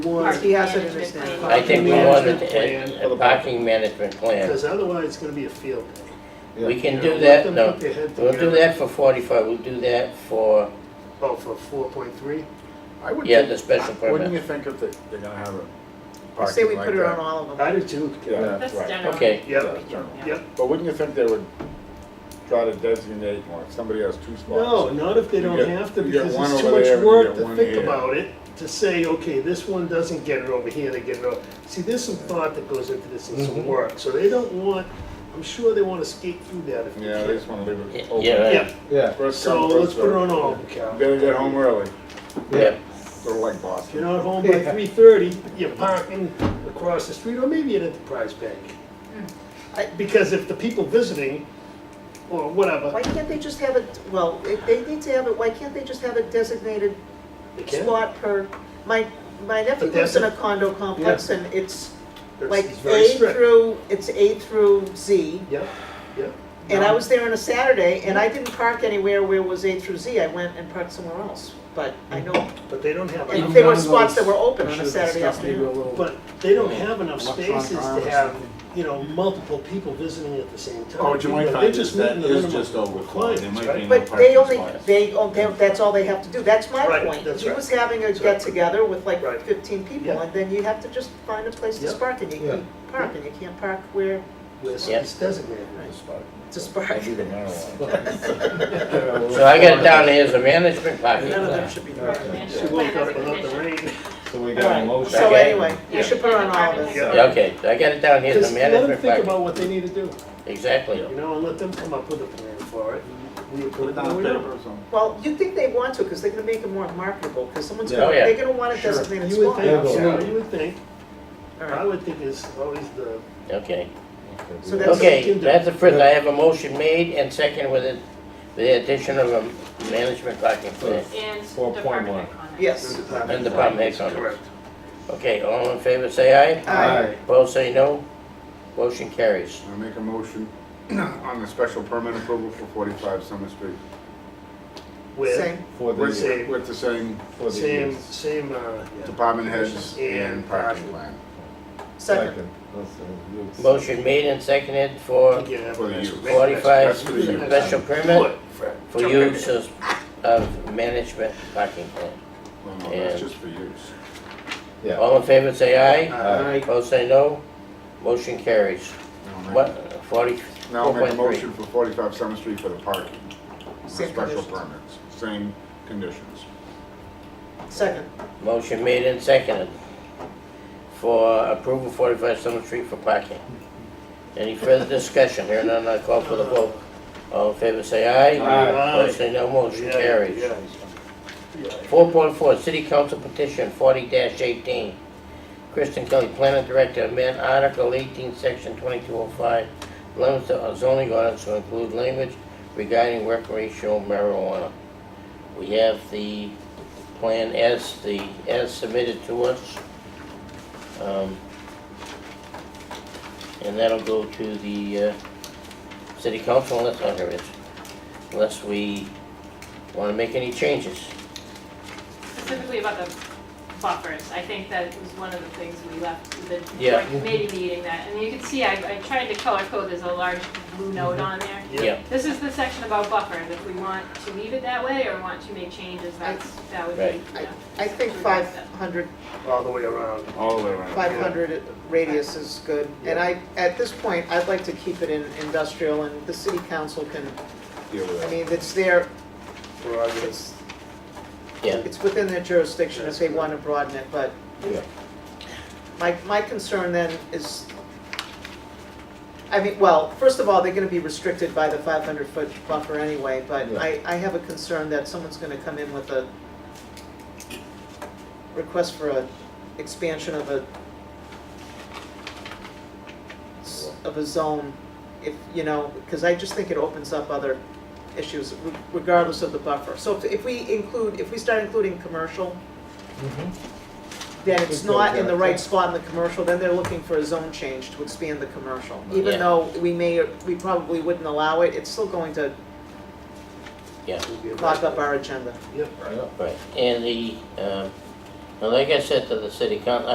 want, Parking management plan. I think we Parking want management plan for a, the a parking management plan. because otherwise it's gonna be a field day. We You can know, do let that, them no, put their head we'll do together. that for forty-five, we'll do that for, Oh, for four point three? I would yeah, think- the special Wouldn't you permit. think if they, they're gonna have a I Say we parking like put it on that? all of them. I do too. Yeah, That's right. general. Okay, Yep, Yeah, general. yep. But wouldn't you think they would try to designate, or if somebody has two spots? No, not if they You don't get- have to, you get because one it's too over there, much you work get to one think here. about it, to say, okay, this one doesn't get it over here, they get it over. See, there's some thought that goes into this and some work, so they don't want, I'm sure they wanna skate through that if they Yeah, they can. just wanna leave Y- it open. yeah, right, Yep, Yeah, First so come, first let's put it served. on all, of them, Cal. You better get home early, yeah, sort of like If you're Boston. not home by three thirty, you're parking across the street, or maybe at Enterprise Bank. Mm. I- Because if the people visiting, or whatever, Why can't they just have it, well, if they need to have it, why can't they just have a designated they can. spot per? My, my nephew But lives in a that's condo complex and it's It's- like it's very A strict. through, it's A through Z. Yep, yep. And I was there on a Saturday and I didn't park anywhere where it was A through Z. I went and parked somewhere else. But I know, But they don't have, and enough- if there were spots that were open on a Saturday afternoon. but they don't have enough Electronic spaces arm to or have, something. you know, multiple people visiting at the same time. Oh, what you might They're find is just that meeting the is minimum just overflow. There might be requirements, no But they parking only, spots. they, oh, they- that's all they have to do, that's my Right, point. that's He right. was having a That's right. get-together with like Right. fifteen people, Yeah. and then you have to just find a place to Yeah. park, and you Yeah. can park, and you can't park where Where it's- Yeah. it's designated. to park. Maybe the marijuana. so I got it down here as a management parking None of them plan. should be Alright. parked. She woke up without the rain. So we got a motion. So Okay. anyway, Yeah. you should put on all this. Yeah. Yeah, Okay, so I got it down here as Just a let them management think parking, about what they need to do, exactly. you know, and let them come up with a plan for it. and We Mm-hmm. Put approve it it down or on we don't. paper or something. Well, you think they want to, because they're gonna make it more marketable, because someone's Yeah. gonna, Oh, yeah. they're gonna want a Sure. designated You would spot. think, Yeah. so you would think, All I right. would think is always the, Okay, So that's- okay, that's a first, I have a motion made and second with it, with the addition of a management parking plan. And Four point one. department comment. Yes. And the problem is on it. correct. Okay, all in favor, say aye. Aye. Opposed, say no. Motion carries. I make a motion on the special permit approval for 45 Summer Street. With Same, For With, the, Same. with the same for the. same, same, uh, department heads And and parking parking. plan. second, Second. That's, uh, you- Motion made and seconded for again, have a For the nice- make youth. a nice- forty-five That's for the youth. special Look, permit Fred, for uh, jump use in. of, of management parking plan. Well, no, that's And- just for use. Yeah. All in favor, say aye. Aye. Opposed, say no. Motion carries. Now I'll What, make- forty, Now four I'll make a point three? motion for 45 Summer Street for the parking. for Same Special conditions. permits, same conditions. second, Motion made and seconded for approval forty-five Summer Street for parking. Any further discussion? Here none, I call for the vote. All in favor, say aye. Opposed, say no. Motion Yeah, carries. yeah. Yeah. Four point four, City Council Petition forty eighteen. Kristen Kelly, Planning Director, amend Article eighteen, Section twenty-two oh five, limits the zoning ordinance to include language regarding recreational marijuana. We have the plan as the, as submitted to us. Um, And that'll go to the, uh, City Council unless, oh, there it is, unless we wanna make any changes. Specifically about the buffers, I think that was one of the things we left with the Yeah. joint committee meeting that, and you can see, I, I tried to color code, there's a large blue note on there. Yeah. This is the section about buffers, if we want to leave it that way or want to make changes, that's, that would Right. be, I, yeah. I think five hundred All the way around. All the way around. 500 radius is good, and I, at this point, I'd like to keep it in industrial, and the city council can, Deal with I that. mean, it's their, Prerogative. it's, Yeah, it's within their jurisdiction if they want to broaden it, but Yeah. my, my concern then is, I mean, well, first of all, they're gonna be restricted by the 500-foot buffer anyway, but Yeah. I, I have a concern that someone's gonna come in with a request for a expansion of a, s- of a zone, if, you know, because I just think it opens up other issues re- regardless of the buffer. So if- if we include, if we start including commercial, Mm-hmm. then it's not in the right spot in the commercial, then they're looking for a zone change to expand the commercial. Yeah. Even though we may, we probably wouldn't allow it, it's still going to yeah, Would be a clog nice- up our agenda. Yep. Yeah. right. And the, um, Now, like I said to the city coun,